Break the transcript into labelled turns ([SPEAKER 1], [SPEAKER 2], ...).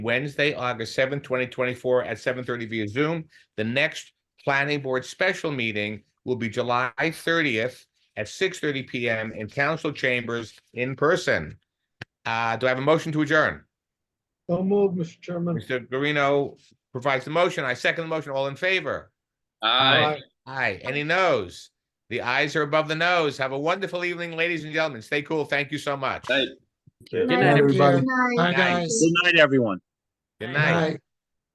[SPEAKER 1] Wednesday, August seventh, twenty twenty-four at seven thirty via Zoom. The next planning board special meeting will be July thirtieth at six thirty PM in council chambers in person. Uh, do I have a motion to adjourn?
[SPEAKER 2] So moved, Mr. Chairman.
[SPEAKER 1] Mr. Guarino provides the motion. I second the motion. All in favor?
[SPEAKER 3] Aye.
[SPEAKER 1] Aye. Any noes? The ayes are above the nose. Have a wonderful evening, ladies and gentlemen. Stay cool. Thank you so much.
[SPEAKER 3] Aye.
[SPEAKER 1] Good
[SPEAKER 2] Good
[SPEAKER 4] night,
[SPEAKER 2] night, everybody.
[SPEAKER 4] Good night.
[SPEAKER 2] Bye, guys.
[SPEAKER 3] Good night, everyone.
[SPEAKER 1] night.
[SPEAKER 2] Bye.